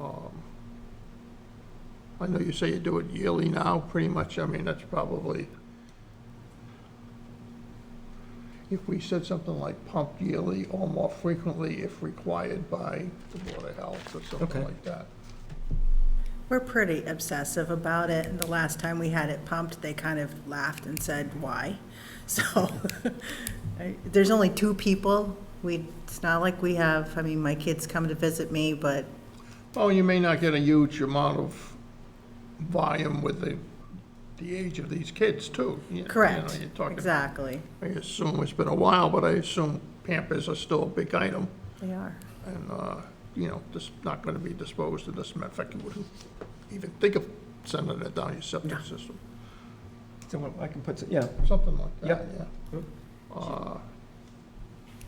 Um, I know you say you do it yearly now, pretty much, I mean, that's probably, if we said something like pump yearly or more frequently if required by the Board of Health or something Okay. like that. We're pretty obsessive about it, and the last time we had it pumped, they kind of laughed and said, why? So, I- there's only two people, we, it's not like we have, I mean, my kids come to visit me, but Oh, you may not get a huge amount of volume with the, the age of these kids too. You- you know, Correct, you're talking- exactly. I assume it's been a while, but I assume Pampers are still a big item. They are. and, uh, you know, just not going to be disposed of this. Matter of fact, you wouldn't even think of sending it down your septic system, So what- I can put, s- yeah, something like that, Yep. yeah. Yep. Uh, Uh,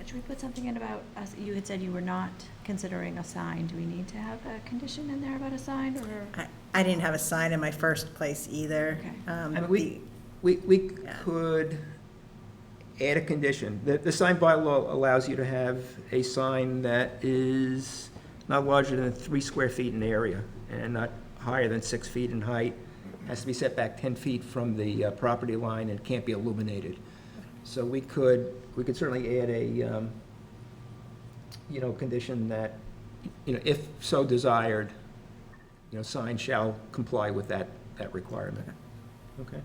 Should we put something in about, us? you had said you were not considering a sign. Do we need to have a condition in there about a sign or? I, I didn't have a sign in my first place either. Okay. Um, I mean, we, we, we could add a condition. The, the sign bylaw allows you to have a sign that is not larger than three square feet in area and not higher than six feet in height. Has to be set back 10 feet from the uh, property line and can't be illuminated. So we could, we could certainly add a, um, you know, condition that, you know, if so desired, you know, sign shall comply with that, that requirement. Okay.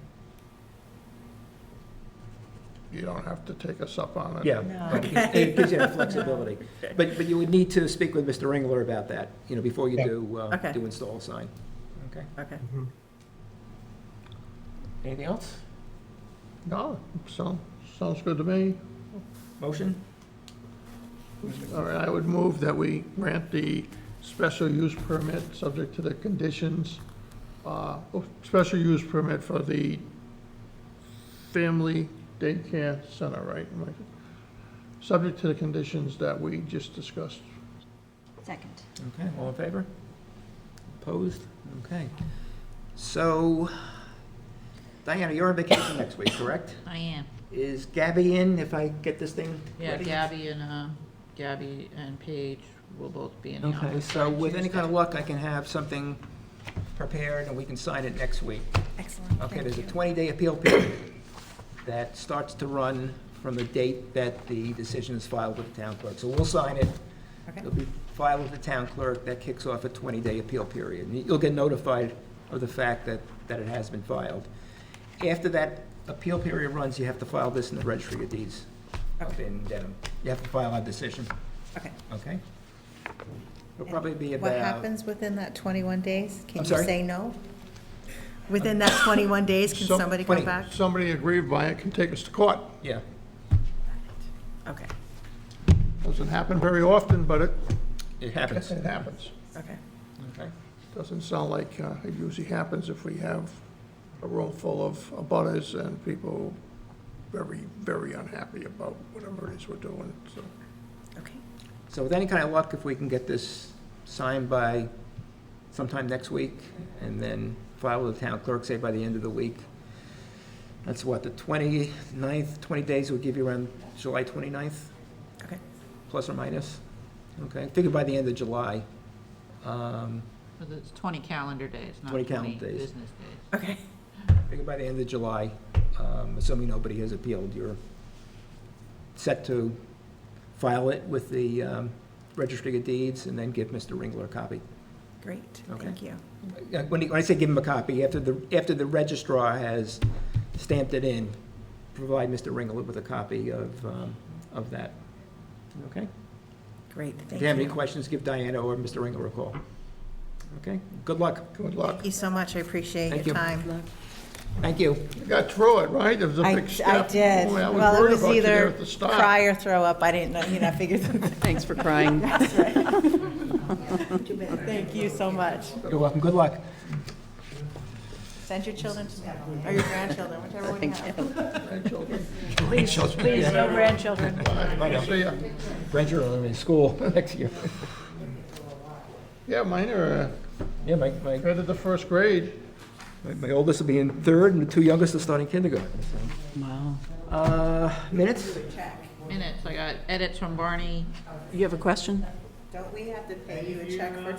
You don't have to take us up on it. Yeah. No. but it- It gives you that flexibility. But, but you would need to speak with Mr. Ringler about that, you know, before you do, uh, Okay. do install a sign. Okay. Okay. Anything else? No, so, sounds good to me. Motion? All right, I would move that we grant the special use permit, subject to the conditions, uh, oh, special use permit for the family daycare center, right? Am I- Subject to the conditions that we just discussed. Second. Okay, all in favor? Opposed? Okay. So, Diana, you're on vacation next week, correct? I am. Is Gabby in, if I get this thing Yeah, ready? Gabby and, um, Gabby and Paige will both be in the Okay, office. so on with any kind of Tuesday. luck, I can have something prepared and we can sign it next week. Excellent. Okay, there's a 20-day appeal period that starts to run from the date that the decision is filed with the town clerk. So we'll sign it. Okay. It'll be filed with the town clerk. That kicks off a 20-day appeal period. And You'll get notified of the fact that, that it has been filed. After that appeal period runs, you have to file this in the registry of deeds up Okay. in Dedham. You have to file our decision, Okay. okay? It'll probably be What about, happens within that 21 days? Can I'm you sorry? say no? Within that 21 days, can So- somebody come 20. back? Somebody aggrieved by it can take us to court. yeah, Okay, Doesn't happen very often, but it, it happens, it happens. okay. okay? Doesn't sound like uh, it usually happens if we have a room full of abutters and people very, very unhappy about whatever it is we're doing, so. Okay. So with any kind of luck, if we can get this signed by sometime next week, and then file with the town clerk, say by the end of the week, that's what, the 29th, 20 days would give you around July 29th, Okay. plus or minus? Okay, figure by the end of July. Um, But It's twenty calendar days, not 20 twenty calendar business days. days. Okay. Figure by the end of July, um, assuming nobody has appealed, you're set to file it with the um, Registry of Deeds, and then give Mr. Ringler a copy. Great, Okay. thank you. Uh, When, he- when I say give him a copy, after the, after the registrar has stamped it in, provide Mr. Ringler with a copy of, um, of that. Okay? Great, If thank you have any you. questions, give Diana or Mr. Ringler a call. Okay? Good luck. Good luck. Thank you so much, I appreciate Thank your you. time. Thank you. You got through it, right? It was a I, big step. I did. Boy, I was Well, it worried was about you there either at the start. cry or throw up, I didn't know, you know, I figured. Thanks for crying. Thank you so much. You're welcome. Good luck. Send your children to me, or your grandchildren, whichever one you have. Grandchildren. Please, Please, no grandchildren. Bye. See ya. Grandchildren in school next year. Yeah, mine are Yeah, my, my, uh, headed to first grade. my- my oldest will be in third, and the two youngest are starting kindergarten. so. Wow. Uh, minutes? Minutes, I got edits from Barney, You have a question? Don't we have to pay you a check for